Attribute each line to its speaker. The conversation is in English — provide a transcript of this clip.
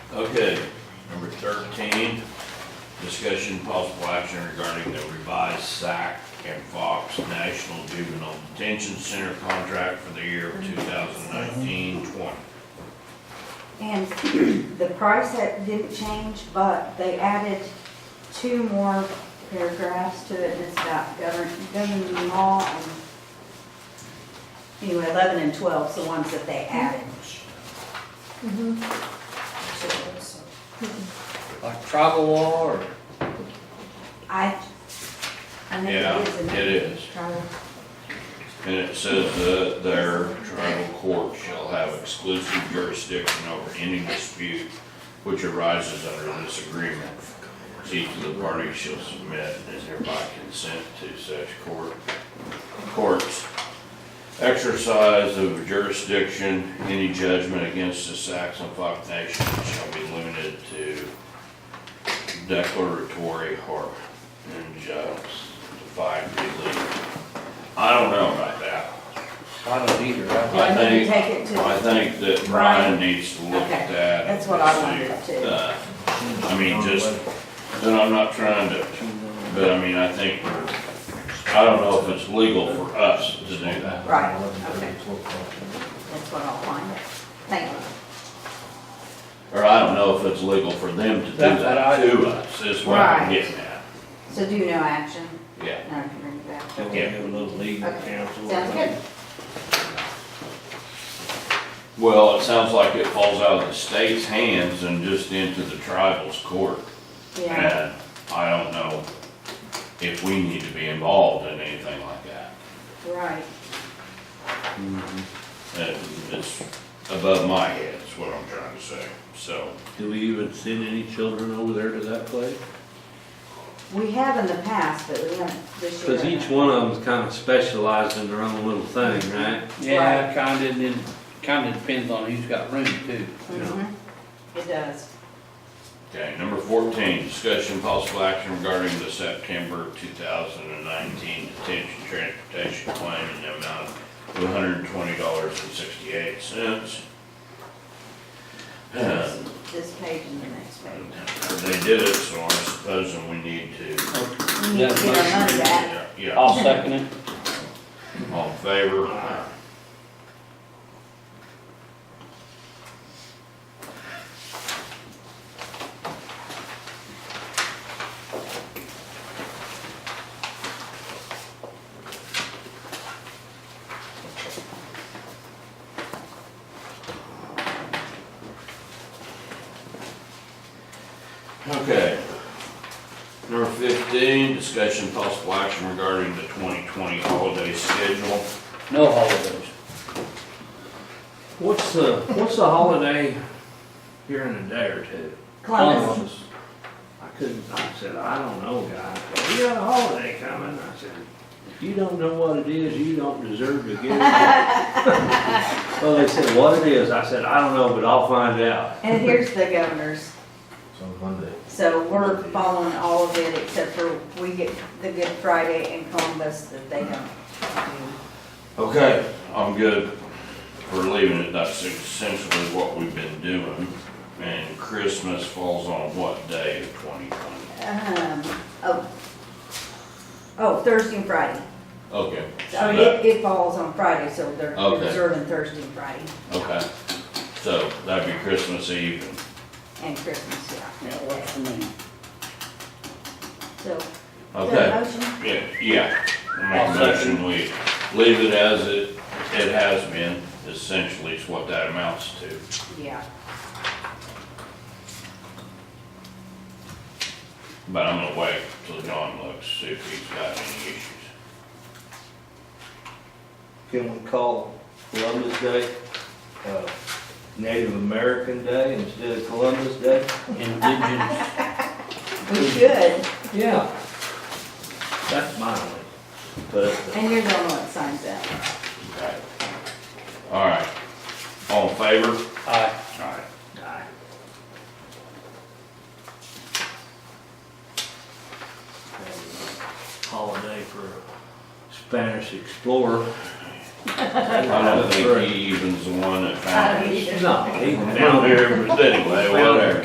Speaker 1: Okay, number thirteen, discussion possible action regarding the revised SAC and Fox National Juvenile Detention Center contract for the year 2019-20.
Speaker 2: And the price that didn't change, but they added two more paragraphs to it, and it's about govern, governing law and anyway, eleven and twelve's the ones that they added.
Speaker 3: Like tribal law or?
Speaker 2: I, I think
Speaker 1: Yeah,
Speaker 2: it is. in
Speaker 1: it is.
Speaker 2: Tribal.
Speaker 1: And it says the, their tribal court shall have exclusive jurisdiction over any dispute which arises under this agreement. Each of the parties shall submit and is hereby consent to such court, courts. Exercise of jurisdiction, any judgment against the Saxon Fox Nation shall be limited to declaratory or injustified relief. I don't know about that.
Speaker 3: I don't either. I-
Speaker 1: I
Speaker 2: And then you
Speaker 1: think,
Speaker 2: take it
Speaker 1: I
Speaker 2: to,
Speaker 1: think that Brian needs to look at
Speaker 2: Okay,
Speaker 1: that.
Speaker 2: that's what I
Speaker 1: and
Speaker 2: wanted
Speaker 1: see,
Speaker 2: to.
Speaker 1: uh, I mean, just, and I'm not trying to, but I mean, I think, I don't know if it's legal for us to do that.
Speaker 2: right, okay, that's what I'll find. Thank you.
Speaker 1: Or I don't know if it's legal for them to do
Speaker 3: That's what
Speaker 1: that
Speaker 3: I-
Speaker 1: to us, is what I'm
Speaker 2: Right.
Speaker 1: getting at.
Speaker 2: So do no action,
Speaker 1: Yeah,
Speaker 2: and I can bring it back.
Speaker 3: Can we have a little legal
Speaker 2: Okay,
Speaker 3: counsel?
Speaker 2: sounds good.
Speaker 1: well, it sounds like it falls out of the state's hands and just into the tribal's court.
Speaker 2: Yeah,
Speaker 1: And I don't know if we need to be involved in anything like that.
Speaker 2: right.
Speaker 3: Mm-hmm.
Speaker 1: Uh, It's above my head, is what I'm trying to say, so.
Speaker 4: Do we even send any children over there to that place?
Speaker 2: We have in the past, but we haven't this year.
Speaker 4: Because each one of them's kind of specialized in their own little thing, right?
Speaker 3: Mm-hmm. Yeah, kinda, and then kinda depends on who's got room too.
Speaker 2: Mhm. It does.
Speaker 1: Okay, number fourteen, discussion possible action regarding the September two thousand and nineteen detention transportation claim in the amount of one hundred and twenty dollars and sixty-eight cents. Uh,
Speaker 2: This this page and the next page.
Speaker 1: They did it, so I'm supposing we need to,
Speaker 2: We need to get our money back.
Speaker 1: yeah,
Speaker 3: I'll second it.
Speaker 1: all in favor? Okay. Number fifteen, discussion possible action regarding the twenty twenty holiday schedule.
Speaker 3: No holidays.
Speaker 4: What's the, what's the holiday here in a day or two?
Speaker 2: Columbus,
Speaker 4: I couldn't, I said, I don't know, guys, but we got a holiday coming. I said, if you don't know what it is, you don't deserve to get it. Well, they said, what it is? I said, I don't know, but I'll find out.
Speaker 2: and here's the governor's.
Speaker 5: It's on Monday.
Speaker 2: So we're following all of it except for we get the Good Friday and Columbus that they don't do.
Speaker 1: Okay. I'm good for leaving it, that's essentially what we've been doing. And Christmas falls on what day of twenty twenty?
Speaker 2: Um, oh, oh, Thursday and Friday.
Speaker 1: Okay.
Speaker 2: I
Speaker 1: so
Speaker 2: mean,
Speaker 1: that-
Speaker 2: it, it falls on Friday, so they're
Speaker 1: Okay.
Speaker 2: observing Thursday and Friday
Speaker 1: Okay, so that'd be Christmas Eve and
Speaker 2: and Christmas, yeah.
Speaker 3: That works for me.
Speaker 2: So, is
Speaker 1: Okay.
Speaker 2: there a motion?
Speaker 1: Yeah, yeah. I
Speaker 3: I'll
Speaker 1: Make a motion, we leave it as it, it has been, essentially is what that amounts to.
Speaker 2: Yeah.
Speaker 1: But I'm gonna wait till John looks, see if he's got any issues.
Speaker 5: Can we call Columbus Day, uh, Native American Day instead of Columbus Day?
Speaker 3: Indigenous,
Speaker 2: We should,
Speaker 5: Yeah.
Speaker 4: That's my only.
Speaker 5: But
Speaker 2: and you're the one that signs that.
Speaker 1: Okay. All right. All in favor?
Speaker 3: aye.
Speaker 1: All right.
Speaker 4: holiday for a Spanish explorer. I
Speaker 1: I don't think he even's the one that found it.
Speaker 4: No, he
Speaker 1: Down
Speaker 4: found it.
Speaker 1: there, but anyway, whatever.